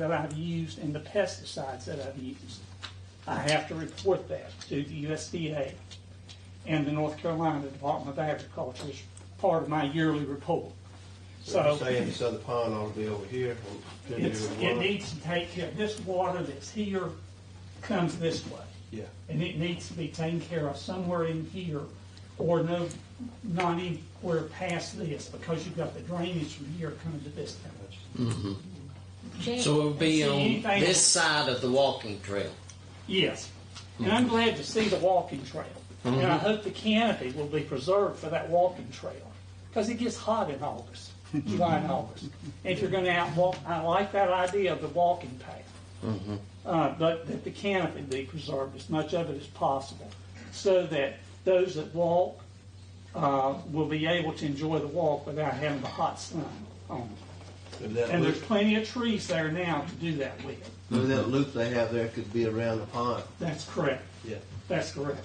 that I've used and the pesticides that I've used. I have to report that to the USDA and the North Carolina Department of Agriculture as part of my yearly report. So So you're saying this other pond ought to be over here? and to it's, the it one- needs to take care, this water that's here comes this way. Yeah, And it needs to be taken care of somewhere in here or no, not anywhere past this because you've got the drainage from here coming to this town. So it would be on Anything- this side of the walking trail. Yes. And I'm glad to see the walking trail. And I hope the canopy will be preserved for that walking trail because it gets hot in August, July and August. And if you're going to out walk, I like that idea of the walking path. Uh, but that the canopy be preserved as much of it as possible so that those that walk uh, will be able to enjoy the walk without having the hot sun on them. and that And there's loop, plenty of trees there now to do that with. maybe that loop they have there could be around the pond. That's correct. Yeah, That's correct.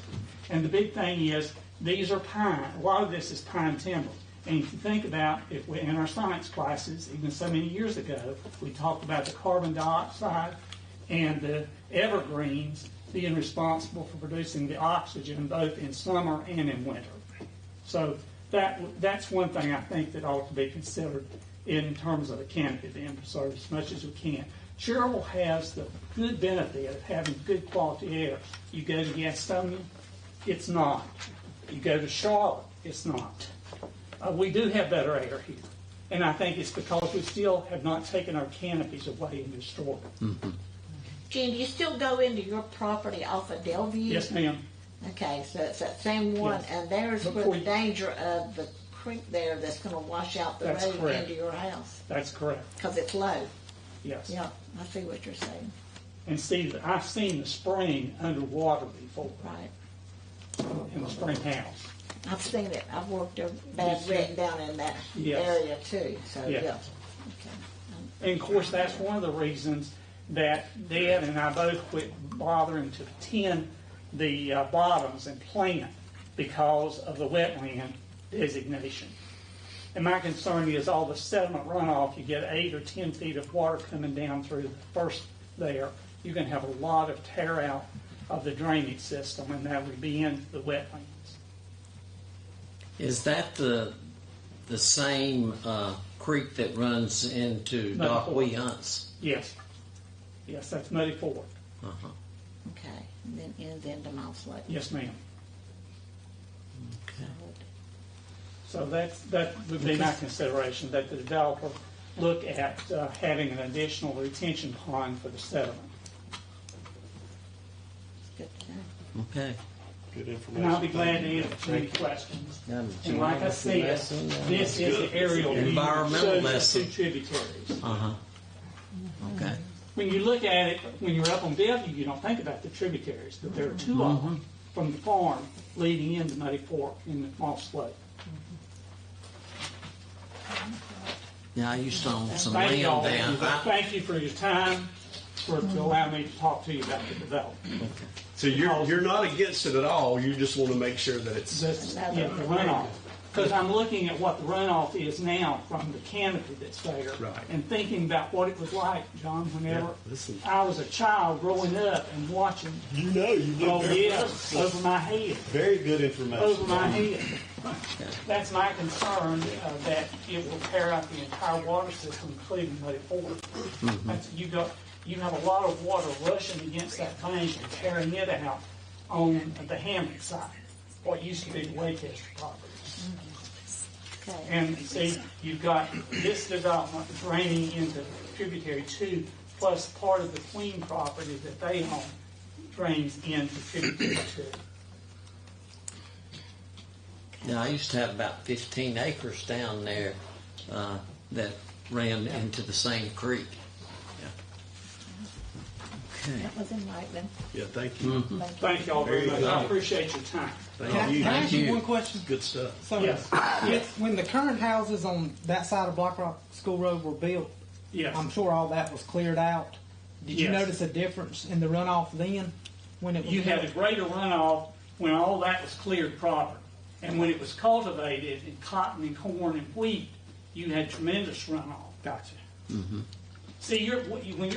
And the big thing is, these are pine, a lot of this is pine timber. And if you think about, if we, in our science classes, even so many years ago, we talked about the carbon dioxide and the evergreens being responsible for producing the oxygen both in summer and in winter. So that, that's one thing I think that ought to be considered in terms of a canopy being preserved as much as we can. Cherville has the good benefit of having good quality air. You go to Gastonia, it's not. You go to Charlotte, it's not. Uh, we do have better air here. And I think it's because we still have not taken our canopies away and destroyed them. Jen, do you still go into your property off of Delview? Yes, ma'am. Okay, so it's that same one, Yes. and there's where Before the you- danger of the creek there that's gonna wash out the That's road correct. into your house, That's correct. because it's low. Yes. Yeah, I see what you're saying, And see, I've seen the spring underwater before right. in the spring house. I've seen it, I've worked a bad wreck down in that Yes. area too, so, Yeah. yeah. Okay. And of course, that's one of the reasons that Dad and I both quit bothering to tend the uh, bottoms and plant because of the wetland designation. And my concern is all the sediment runoff, you get eight or 10 feet of water coming down through the first there, you're going to have a lot of tear out of the drainage system, and that would be into the wetlands. Is that the the same uh, creek that runs into No. Doc Wee Hunt's? Yes, yes, that's Muddy Ford. Uh-huh. Okay, and then ends into Mouse Lake. Yes, ma'am. Okay. So that's, that would be my consideration, that the developer look at uh, having an additional retention pond for the sediment. Good to know. Okay. good information. And I'll be glad to answer any questions. Um, And like I said, this is the aerial view. Environmental Shows the lesson. Two tributaries. Uh huh. Okay. When you look at it, when you're up on Bellevue, you don't think about the tributaries, but there are two of them from the farm leading into Muddy Fork in Moss Lake. Yeah, I used to own some Thank y'all. land down. I, Thank you for your time, for allowing me to talk to you about the development. So you're, you're not against it at all, you just want to make sure that it's, That's, yeah, the runoff. Because I'm looking at what the runoff is now from the canopy that's there. Right. And thinking about what it was like, John, whenever Yeah, listen. I was a child growing up and watching, you know, you oh, know. yeah, over my head, Very good information. over my head. That's my concern, uh, that it will tear out the entire water system, including Muddy Ford. Mm-hmm. That's- You got, you have a lot of water rushing against that bank and tearing it out on the Hamlet side, what used to be the Waycaster property. Okay, And see, you've got this development draining into tributary two, plus part of the Queen property that they own drains into tributary two. yeah, I used to have about 15 acres down there uh, that ran into the same creek. Yeah. Okay. that was enlightening, Yeah, thank you. Mm. thank you. Thank y'all very There much. you I go. appreciate your time. Can I, Thank can I you. ask you you. one question? Good stuff. So, Yes. when- when the current houses on that side of Black Rock School Road were built, Yes. I'm sure all that was cleared out. Did Yes. you notice a difference in the runoff then? When it was You built? had a greater runoff when all that was cleared proper. And when it was cultivated in cotton and corn and wheat, you had tremendous runoff. Gotcha. See, you're, when you're